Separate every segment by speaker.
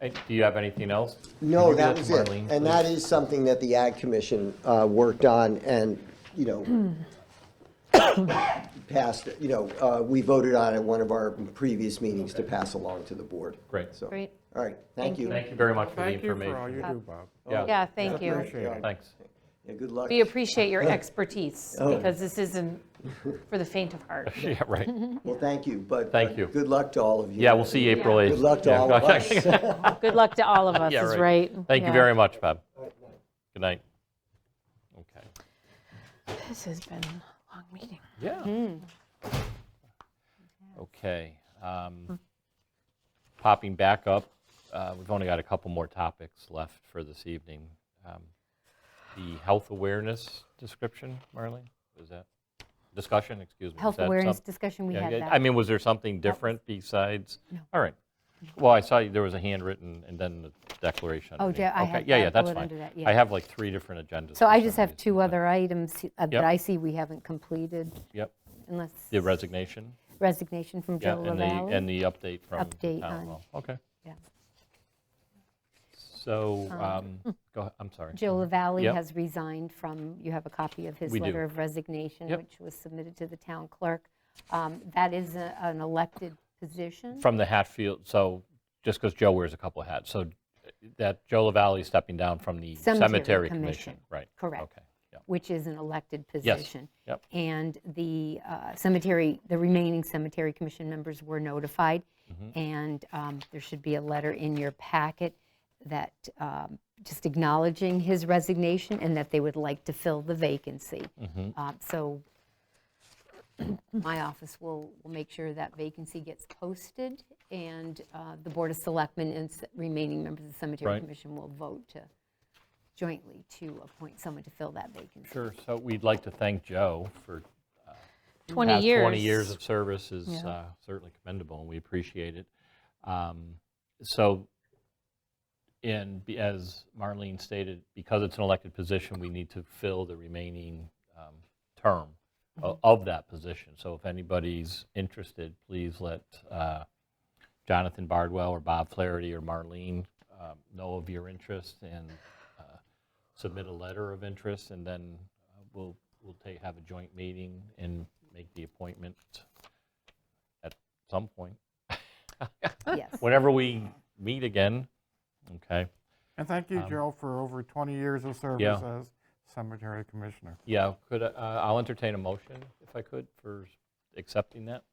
Speaker 1: Hey, Do you have anything else?
Speaker 2: No,
Speaker 1: Could you
Speaker 2: that
Speaker 1: go
Speaker 2: was
Speaker 1: to
Speaker 2: it.
Speaker 1: Marlene,
Speaker 2: And that
Speaker 1: please?
Speaker 2: is something that the Ag Commission uh, worked on and, you know, passed, you know, uh, we voted on at one of our previous meetings to pass along to the board.
Speaker 1: Great.
Speaker 2: So,
Speaker 3: Great.
Speaker 2: All right, thank
Speaker 3: Thank
Speaker 2: you.
Speaker 1: Thank you very much for the
Speaker 4: Thank you for all you
Speaker 1: information.
Speaker 4: do, Bob.
Speaker 1: Yeah,
Speaker 3: Yeah, thank you.
Speaker 2: Appreciate it.
Speaker 1: thanks.
Speaker 2: Yeah, Good luck.
Speaker 3: We appreciate your expertise,
Speaker 1: Oh.
Speaker 3: because this isn't for the faint of heart.
Speaker 1: Yeah, right.
Speaker 2: Well, thank you, but.
Speaker 1: Thank
Speaker 2: uh,
Speaker 1: you.
Speaker 2: Good luck to all of you.
Speaker 1: Yeah, we'll see you April 8th.
Speaker 2: Good luck to
Speaker 1: Yeah.
Speaker 2: all of us.
Speaker 3: Good luck to all of us,
Speaker 1: Yeah,
Speaker 3: is right.
Speaker 1: Thank you
Speaker 3: Yeah.
Speaker 1: very much, Bob. Good night. Okay.
Speaker 3: This has been a long meeting.
Speaker 1: Yeah.
Speaker 5: Hmm.
Speaker 1: Okay. um, Popping back up, uh, we've only got a couple more topics left for this evening. Um, The health awareness description, Marlene, was that, discussion, excuse me. was
Speaker 5: Health
Speaker 1: that
Speaker 5: awareness
Speaker 1: some-
Speaker 5: discussion, we
Speaker 1: Yeah,
Speaker 5: had
Speaker 1: yeah,
Speaker 5: that.
Speaker 1: I mean, was there something different besides? All right. Well, I saw you- there was a handwritten and then the declaration.
Speaker 5: Oh,
Speaker 1: underneath.
Speaker 5: yeah, I
Speaker 1: Okay,
Speaker 5: had
Speaker 1: Yeah,
Speaker 5: that
Speaker 1: yeah, that's
Speaker 5: bullet
Speaker 1: fine.
Speaker 5: under that,
Speaker 1: I
Speaker 5: yeah.
Speaker 1: have like three different agendas.
Speaker 5: So
Speaker 1: for
Speaker 5: I
Speaker 1: some
Speaker 5: just have
Speaker 1: reason,
Speaker 5: two
Speaker 1: but-
Speaker 5: other items uh,
Speaker 1: Yep.
Speaker 5: that I see we haven't completed,
Speaker 1: Yep,
Speaker 5: unless
Speaker 1: the resignation.
Speaker 5: resignation from
Speaker 1: Yeah,
Speaker 5: Joe
Speaker 1: and the, and the
Speaker 5: Lavalley.
Speaker 1: update from the
Speaker 5: Update
Speaker 1: town
Speaker 5: on-
Speaker 1: hall. Okay.
Speaker 5: Yeah.
Speaker 1: So, um, go, ahe- I'm sorry.
Speaker 5: hmm. Joe Lavalley
Speaker 1: Mm-hmm. Yep.
Speaker 5: has resigned from, you have a copy of his
Speaker 1: We do.
Speaker 5: letter of resignation,
Speaker 1: Yep.
Speaker 5: which was submitted to the town clerk. Um, That is a- an elected position.
Speaker 1: From the Hatfield, so, just because Joe wears a couple of hats, so uh, that Joe Lavalley stepping down from the
Speaker 5: Cemetery
Speaker 1: Cemetery
Speaker 5: Commission.
Speaker 1: Commission. Right.
Speaker 5: Correct.
Speaker 1: Okay, yeah.
Speaker 5: which is an elected position.
Speaker 1: Yep.
Speaker 5: And the uh, cemetery, the remaining cemetery commission members were notified, and um, there should be a letter in your packet that, um, just acknowledging his resignation and that they would like to fill the vacancy. Uh, So my office will, will make sure that vacancy gets posted, and uh, the Board of Selectmen and s- remaining members of the cemetery
Speaker 1: Right.
Speaker 5: commission will vote to jointly to appoint someone to fill that vacancy.
Speaker 1: Sure, so we'd like to thank Joe for
Speaker 3: 20
Speaker 1: past
Speaker 3: years.
Speaker 1: 20 years of service is uh, certainly commendable, and we appreciate it. Um, So, and be- as Marlene stated, because it's an elected position, we need to fill the remaining um, term o- of that position. So if anybody's interested, please let uh, Jonathan Bardwell or Bob Flaherty or Marlene um, know of your interest and uh, submit a letter of interest, and then uh, we'll, we'll take, have a joint meeting and make the appointment at some point,
Speaker 5: Yes.
Speaker 1: whenever we meet again, okay?
Speaker 4: And thank
Speaker 1: Um,
Speaker 4: you, Joe, for over 20 years of service as cemetery commissioner.
Speaker 1: Yeah, could, I- uh, I'll entertain a motion, if I could, for accepting that.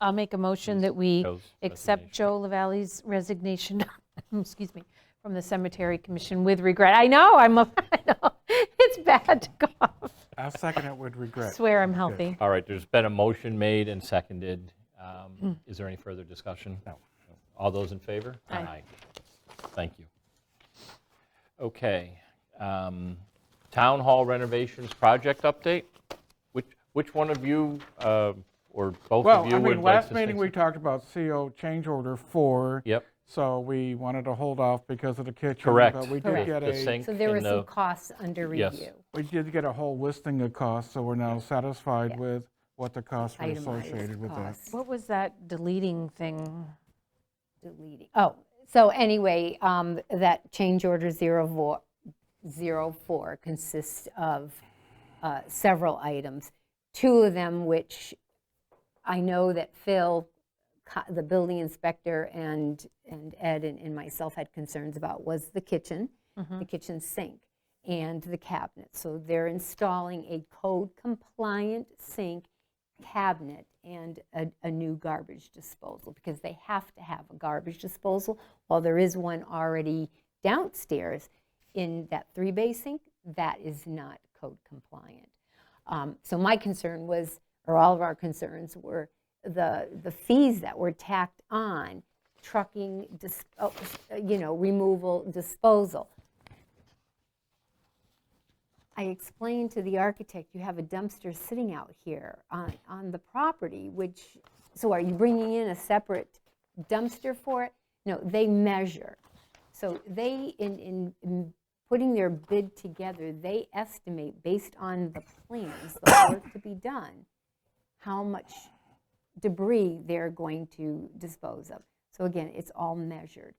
Speaker 3: I'll make a motion that we
Speaker 1: Joe's
Speaker 3: accept
Speaker 1: resignation.
Speaker 3: Joe Lavalley's resignation, excuse me, from the Cemetery Commission with regret. I know, I'm, a- I know, it's bad to go off.
Speaker 4: I second it with
Speaker 3: I
Speaker 4: regret.
Speaker 3: Swear I'm healthy.
Speaker 1: All right, there's been a motion made and seconded.
Speaker 5: Hmm.
Speaker 1: Um, Is there any further discussion?
Speaker 4: No.
Speaker 1: All those in favor?
Speaker 3: Aye.
Speaker 1: Thank you. Okay. um, Town Hall renovations project update? Which, which one of you, uh, or both
Speaker 4: Well,
Speaker 1: of
Speaker 4: I
Speaker 1: you would
Speaker 4: mean,
Speaker 1: like
Speaker 4: last
Speaker 1: to say?
Speaker 4: meeting, we
Speaker 1: some-
Speaker 4: talked about CO change order four.
Speaker 1: Yep,
Speaker 4: So we wanted to hold off because of the kitchen.
Speaker 1: Correct.
Speaker 4: But we did
Speaker 5: Correct.
Speaker 4: get
Speaker 1: The
Speaker 4: a,
Speaker 1: sink
Speaker 5: So there were
Speaker 1: and the-
Speaker 5: some costs under
Speaker 1: Yes.
Speaker 5: review.
Speaker 4: we did get a whole listing of costs, so we're now satisfied with what the costs were associated
Speaker 5: Itemized
Speaker 4: with that.
Speaker 5: costs,
Speaker 3: What was that deleting thing?
Speaker 5: deleting. Oh, so anyway, um, that change order zero four, zero four consists of uh, several items. Two of them which I know that Phil, co- the building inspector, and, and Ed and and myself had concerns about was the kitchen, the kitchen sink, and the cabinet. So they're installing a code-compliant sink cabinet and a, a new garbage disposal, because they have to have a garbage disposal. While there is one already downstairs in that three-bay sink, that is not code-compliant. Um, So my concern was, or all of our concerns were, the, the fees that were tacked on, trucking, dis- oh, you know, removal, disposal. I explained to the architect, you have a dumpster sitting out here on, on the property, which, so are you bringing in a separate dumpster for it? No, they measure. So they, in, in- in putting their bid together, they estimate based on the plans, the work to be done, how much debris they're going to dispose of. So again, it's all measured.